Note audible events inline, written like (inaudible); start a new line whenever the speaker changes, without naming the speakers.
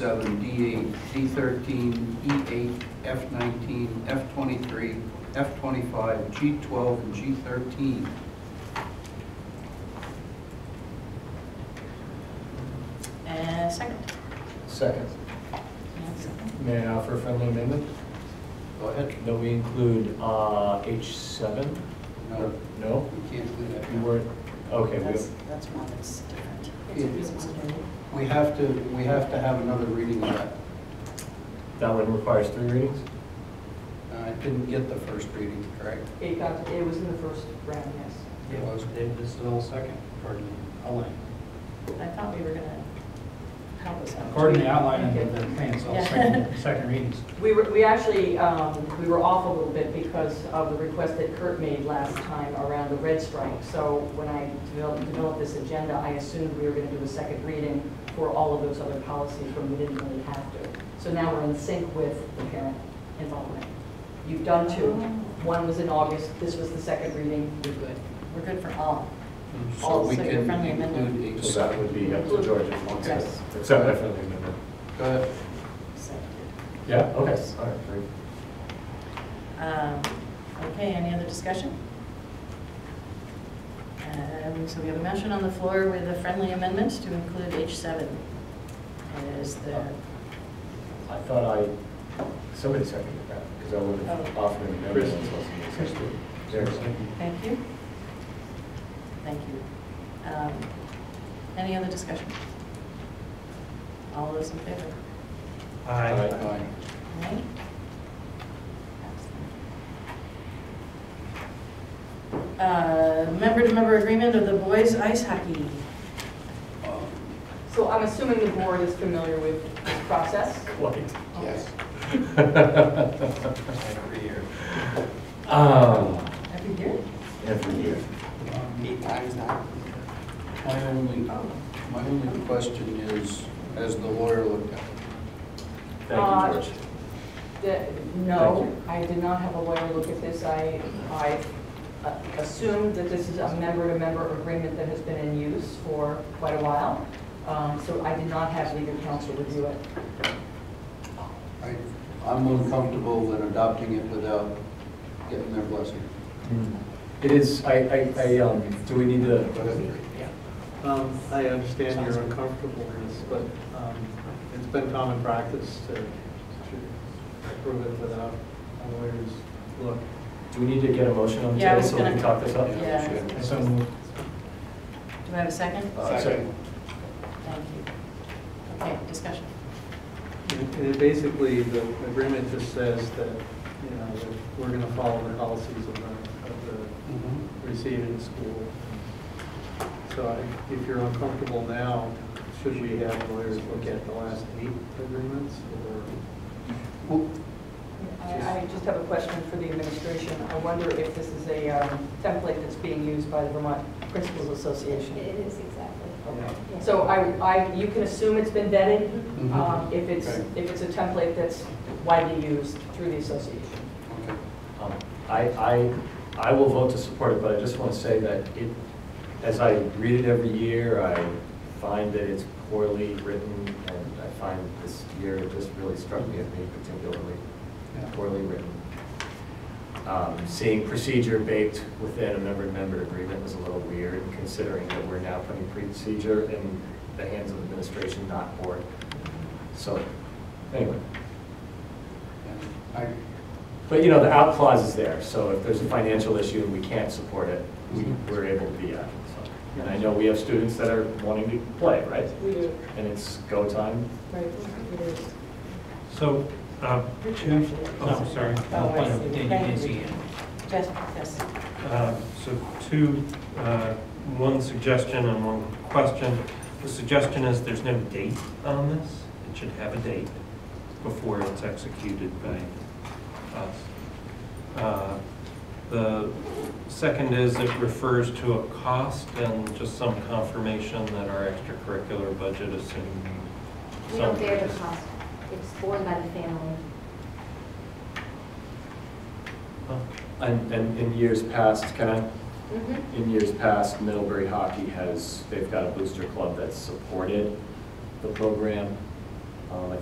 seven, D eight, D thirteen, E eight, F nineteen, F twenty-three, F twenty-five, G twelve, and G thirteen.
And second.
Second, may I offer a friendly amendment?
Go ahead.
That we include uh, H7?
No,
Uh, No?
we can't do that.
You weren't, okay,
That's,
we,
that's one that's different.
Yeah. We have to, we have to have another reading of that.
that one requires three readings?
Uh, I didn't get the first reading, correct?
It got, it was in the first round, yes.
It was. This is all second, pardon me. Elaine.
I thought we were gonna help us out.
According to the outline of the thing, it's all
(laughs)
second, second readings.
We were, we actually, um, we were off a little bit because of the request that Kurt made last time around the red strike. So when I developed, developed this agenda, I assumed we were gonna do a second reading for all of those other policies when we didn't really have to. So now we're in sync with the parent involvement. You've done two. One was in August, this was the second reading, you're good.
We're good for all.
Oh, So
All
we
second
can
friendly amendment.
include a.
So that would be up to George if he wants it.
Yes.
Except my friendly amendment.
Go ahead.
Yeah, okay, all right, great.
Um, Okay, any other discussion? Um, So we have a motion on the floor with a friendly amendment to include H7 as the,
I thought I, somebody seconded that, because I would have
Oh.
offered an amendment.
Chris.
Chris. There.
thank you. Thank you. Um, Any other discussion? All those in favor?
Aye.
Aye.
Right? Uh, Member-to-member agreement of the boys ice hockey.
Um,
So I'm assuming the board is familiar with this process?
(laughs) Quite.
Yes. Every year.
Um,
Every year?
Every year.
um, Eight times now. My only,
Oh.
my only question is, has the lawyer looked at it?
Thank you,
Uh,
George.
The- No, I did not have a lawyer look at this. I, I uh, assumed that this is a member-to-member agreement that has been in use for quite a while. Um, So I did not have legal counsel review it.
I- I'm uncomfortable in adopting it without getting their blessing.
It is, I, I, I, um, do we need to?
But it-
Um, I understand your uncomfortableness, but um, it's been common practice to to approve it without a lawyer's look.
Do we need to get a motion on the
Yeah, I
table
was
so we can
gonna-
talk this up?
Yeah.
And so moved.
Do I have a second?
Uh, sorry.
Thank you. Okay, discussion.
And and basically, the agreement just says that, you know, that we're going to follow the policies of the, of
Mhm.
the receiving school. So I- if you're uncomfortable now, should we have lawyers look at the last eight agreements or?
Well,
I I just have a question for the administration. I wonder if this is a um, template that's being used by the Vermont Principals Association?
It is exactly.
Okay. So I, I, you can assume it's been vetted,
Mhm.
um, if it's,
Okay.
if it's a template that's widely used through the association.
okay.
Um, I, I, I will vote to support it, but I just want to say that it, as I read it every year, I find that it's poorly written, and I find this year, it just really struck me as being particularly poorly written. Um, Seeing procedure baked within a member-to-member agreement was a little weird, considering that we're now putting procedure in the hands of administration, not board. So, anyway.
Yeah. I,
But, you know, the out clause is there, so if there's a financial issue and we can't support it, we- we're able to be out. so. And I know we have students that are wanting to play, right?
We do,
And it's go time.
right, it is.
So,
uh,
um, two, oh, sorry.
Oh, I see.
Did you didn't see it?
Yes, yes.
Uh, So two, uh, one suggestion and one question. The suggestion is there's no date on this. It should have a date before it's executed by us. Uh, The second is it refers to a cost and just some confirmation that our extracurricular budget assumes
We
some.
don't bear the cost. It's borne by the family.
And, and in years past, can I, in years past, Middlebury Hockey has, they've got a booster club that's supported the program. Um, I